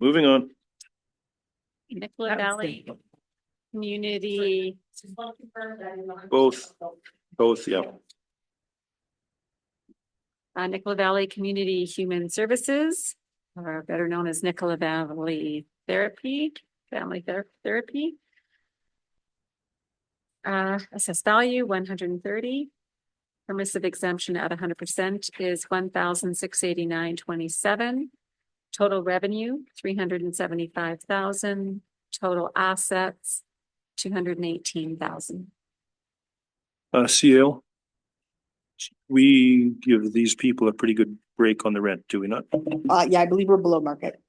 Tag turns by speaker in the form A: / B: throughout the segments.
A: Moving on.
B: Nicola
C: That was
B: Valley
C: simple.
B: Community,
A: Both. Both, yeah.
B: uh, Nicola Valley Community Human Services, or better known as Nicola Valley Therapy, Family Ther- Therapy. Uh, assessed value one hundred and thirty. Permissive exemption at hundred percent is one thousand six eighty-nine twenty-seven. Total revenue, three hundred and seventy-five thousand, total assets, two hundred and eighteen thousand.
A: Uh, CL. We give these people a pretty good break on the rent, do we not?
C: Uh, yeah, I believe we're below market.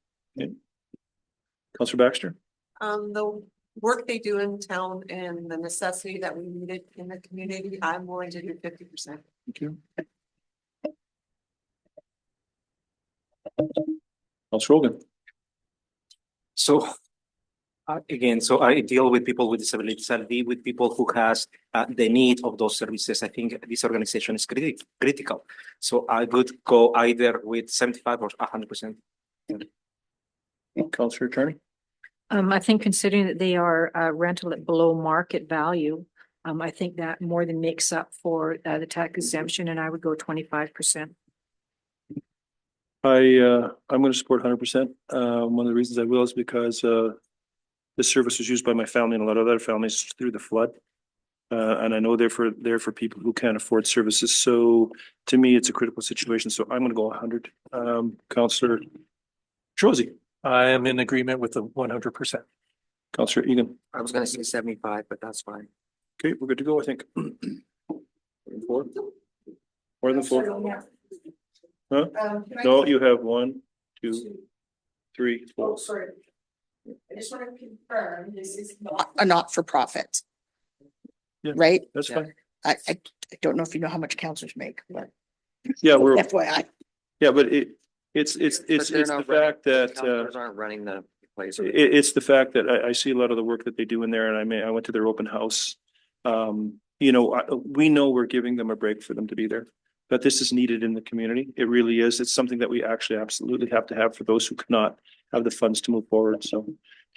A: Counselor Baxter?
D: Um, the work they do in town and the necessity that we need it in the community, I'm willing to do fifty percent.
A: Thank you. Counselor Rogan?
E: So uh, again, so I deal with people with disabilities. I deal with people who has uh, the need of those services. I think this organization is criti- critical. So I would go either with seventy-five or hundred percent.
A: Counselor Attorney?
F: Um, I think considering that they are uh, rental at below market value, um, I think that more than makes up for uh,
B: Mm-hmm.
F: the tax exemption and I would go twenty-five percent.
A: I, uh, I'm going to support hundred percent. Uh, one of the reasons I will is because, uh, this service was used by my family and a lot of other families through the flood. Uh, and I know they're for, they're for people who can't afford services. So to me, it's a critical situation. So I'm going to go hundred. Um, Counselor Trozy,
G: I am in agreement with the one hundred percent.
A: Counselor Egan.
E: I was gonna say seventy-five, but that's fine.
A: Okay, we're good to go, I think. Four? More than four? Huh?
D: Um, can I
A: No,
D: say
A: you have one, two,
D: two?
A: three,
D: Oh,
A: four.
D: sorry. I just want to confirm, this is not.
C: A not-for-profit.
A: Yeah.
C: Right?
A: That's fine.
C: I, I I don't know if you know how much counselors make, but
A: Yeah, we're,
C: FYI,
A: yeah, but it, it's, it's, it's, it's the fact that, uh,
E: Aren't running the place.
A: It, it's the fact that I, I see a lot of the work that they do in there and I may, I went to their open house. Um, you know, I, we know we're giving them a break for them to be there, but this is needed in the community. It really is. It's something that we actually absolutely have to have for those who cannot have the funds to move forward. So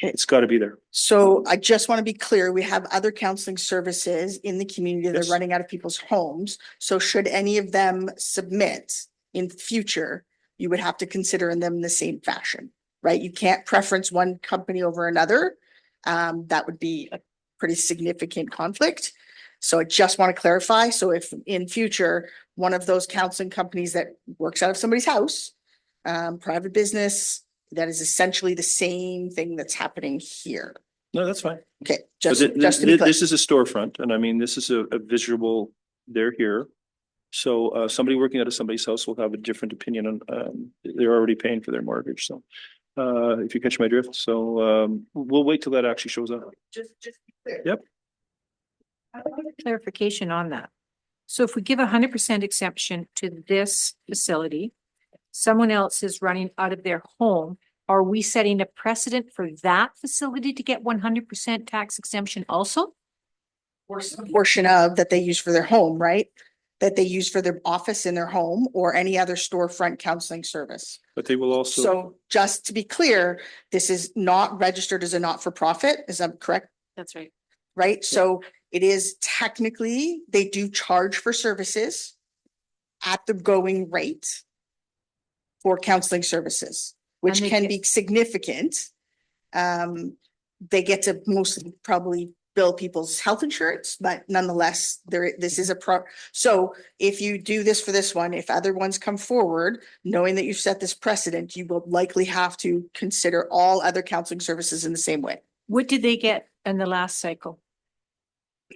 A: it's got to be there.
C: so I just want to be clear, we have other counseling services in the community. They're
A: Yes.
C: running out of people's homes. So should any of them submit in future, you would have to consider them in the same fashion, right? You can't preference one company over another. Um, that would be a pretty significant conflict. So I just want to clarify. So if in future, one of those counseling companies that works out of somebody's house, um, private business, that is essentially the same thing that's happening here.
A: No, that's fine.
C: Okay,
A: But
C: just,
A: thi-
C: just
A: thi-
C: to be clear.
A: This is a storefront and I mean, this is a, a visual, they're here. So, uh, somebody working out of somebody's house will have a different opinion on, um, they're already paying for their mortgage, so. Uh, if you catch my drift, so, um, we'll wait till that actually shows up.
D: Just, just be clear.
A: Yep.
F: Clarification on that. So if we give a hundred percent exemption to this facility, someone else is running out of their home, are we setting a precedent for that facility to get one hundred percent tax exemption also?
C: Or some Portion of that they use for their home, right? That they use for their office in their home or any other storefront counseling service.
A: But they will also,
C: So just to be clear, this is not registered as a not-for-profit, is that correct?
B: That's right.
C: Right? So it is technically, they do charge for services at the going rate for counseling services, which
F: they
C: can
F: get-
C: be significant. Um, they get to mostly probably bill people's health insurance, but nonetheless, there, this is a pro. So if you do this for this one, if other ones come forward, knowing that you've set this precedent, you will likely have to consider all other counseling services in the same way.
F: What did they get in the last cycle?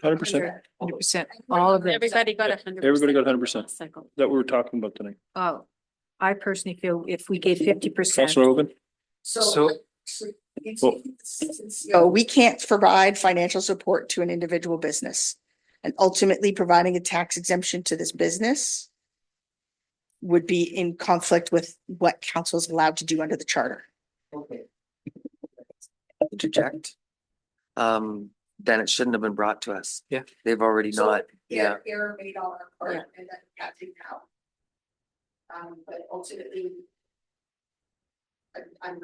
A: hundred percent,
F: Hundred percent, all of them.
B: Everybody got a hundred.
A: Everybody got 100%.
B: Cycle.
A: that we were talking about tonight.
F: Oh, I personally feel if we gave fifty percent.
A: Counselor Hogan?
E: So
A: Well-
C: So we can't provide financial support to an individual business. And ultimately, providing a tax exemption to this business would be in conflict with what council is allowed to do under the charter.
H: Okay. Interject. Um, then it shouldn't have been brought to us.
E: Yeah.
H: They've already
C: So,
H: not, yeah,
C: error made on our
B: part,
C: and then catching out. Um, but ultimately, I'm